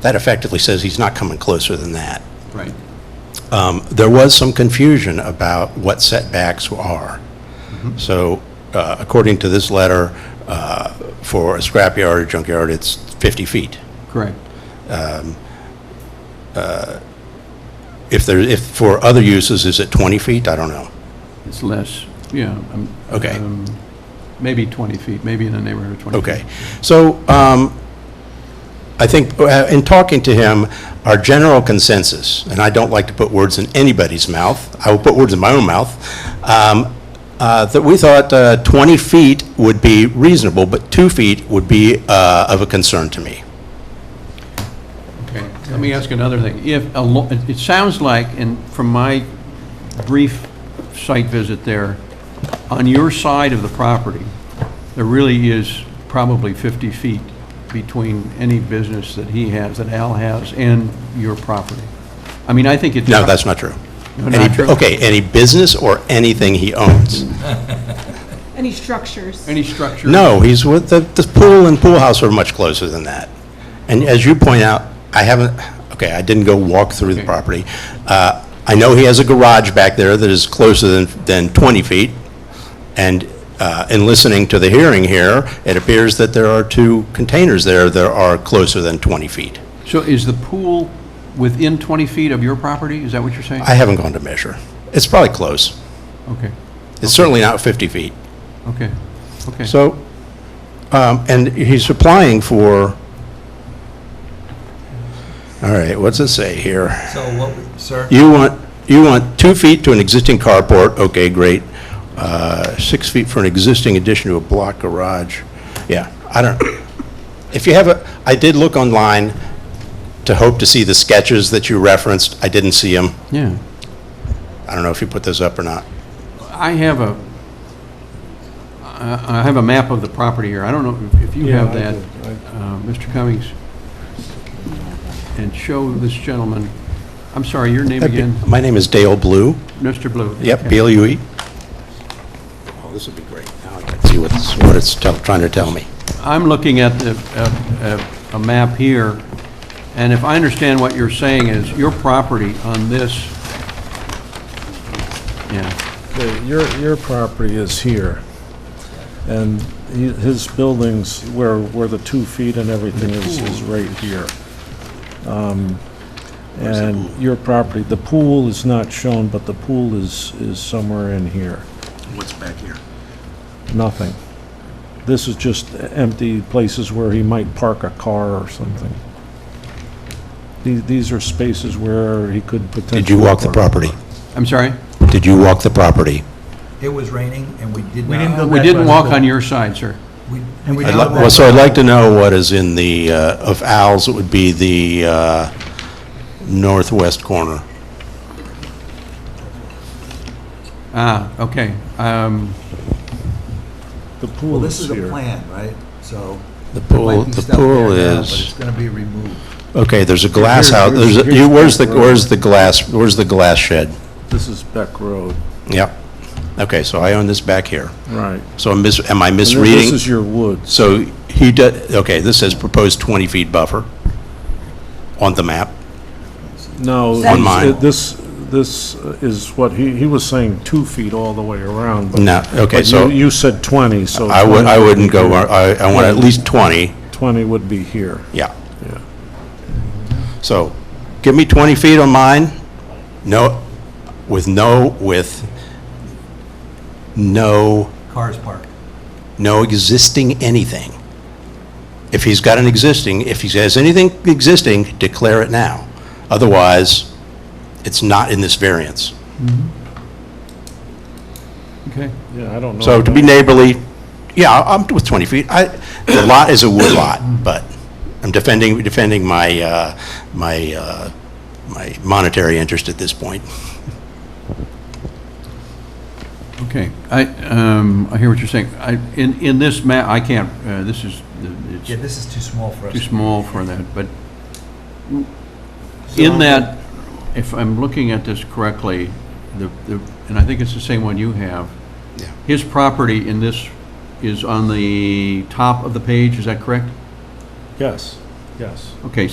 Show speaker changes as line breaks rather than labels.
that effectively says he's not coming closer than that.
Right.
Um, There was some confusion about what setbacks are. So uh, according to this letter, uh, for a scrapyard or junkyard, it's 50 feet.
Correct.
If there, if, for other uses, is it 20 feet? I don't know.
It's less, yeah. um,
Okay.
um, Maybe 20 feet, maybe in the neighborhood of 20. feet.
Okay. So um, I think, uh, in talking to him, our general consensus, and I don't like to put words in anybody's mouth, I will put words in my own mouth, um, uh, that we thought uh, 20 feet would be reasonable, but two feet would be uh, of a concern to me.
Okay, let me ask another thing. If, a lo- it it sounds like, and from my brief site visit there, on your side of the property, there really is probably 50 feet between any business that he has, that Al has, and your property. I mean, I think it's...
No, that's not true.
No, not
Any-
true?
Okay, any business or anything he owns?
Any structures?
Any structure?
No, he's with, the, the pool and pool house are much closer than that. And as you point out, I haven't, okay, I didn't go walk through the
Okay.
property. Uh, I know he has a garage back there that is closer than, than 20 feet. And uh, in listening to the hearing here, it appears that there are two containers there that are closer than 20 feet.
So is the pool within 20 feet of your property? Is that what you're saying?
I haven't gone to measure. It's probably close.
Okay,
It's certainly not 50 feet.
okay, okay.
So, um, and he's applying for, all right, what's it say here?
So what, we- sir?
You want, you want two feet to an existing carport, okay, great. Uh, Six feet for an existing addition to a block garage. Yeah, I don't, if you have a, I did look online to hope to see the sketches that you referenced. I didn't see them.
Yeah.
I don't know if you put those up or not.
I have a, I I have a map of the property here. I don't know if- if you have that, uh, Mr. Cummings. And show this gentleman, I'm sorry, your name again?
My name is Dale Blue.
Mr. Blue?
Yep,
Okay.
BLUE. Oh, this would be great. Now I can see what it's, what it's tell- trying to tell me.
I'm looking at the, a, a map here, and if I understand what you're saying is, your property on this, yeah,
Okay, Your, your property is here, and he- his buildings, where, where the two feet and everything is, is right here. Um, And your property, the pool is not shown, but the pool is, is somewhere in here.
What's back here?
Nothing. This is just empty places where he might park a car or something. The- These are spaces where he could potentially.
Did you walk the
park.
property?
I'm sorry?
Did you walk the property?
It was raining and we did not.
We didn't go
We
back by
didn't
the
walk
pool.
on your side, sir.
We-
And we
we
I'd
didn't
did
like,
not
well,
walk-
so I'd like to know what is in the, uh, of Al's, it would be the uh, northwest corner.
Ah, okay. Um,
The
Well,
pool is
this is a
here.
plan, right? So.
The
there might
pool,
be
the
stuff
pool
there now, But it's
is,
going to be removed.
okay, there's a glass house,
here's-
there's, a-
here's
you- where's the,
Beck Road.
where's the glass, where's the glass shed?
This is Beck Road.
Yep. Okay, so I own this back here.
Right.
So I'm mis, am I
And
misreading?
This is your woods.
So he does, okay, this says proposed 20-feet buffer on the map.
No.
That's-
On mine.
it- This, this is what, he, he was saying two feet all the way around. but-
No, okay,
but
so
you- You said 20, so.
I would, I
20
wouldn't go, I, I want at least 20,
20 would be here.
yeah.
Yeah.
So give me 20 feet on mine, no, with no, with no,
Cars parked.
no existing anything. If he's got an existing, if he has anything existing, declare it now. Otherwise, it's not in this variance.
okay.
Yeah, I don't know.
So to be neighborly, yeah, I- I'm with 20 feet. I, the lot is a wood lot, but I'm defending, defending my, uh, my, uh, my monetary interest at this point.
Okay, I, um, I hear what you're saying. I, in, in this map, I can't, uh, this is,
Yeah,
it's
this is too small for us.
too small for that, but in that, if I'm looking at this correctly, the, the, and I think it's the same one you have.
Yeah.
His property in this is on the top of the page, is that correct?
Yes, yes.
Okay,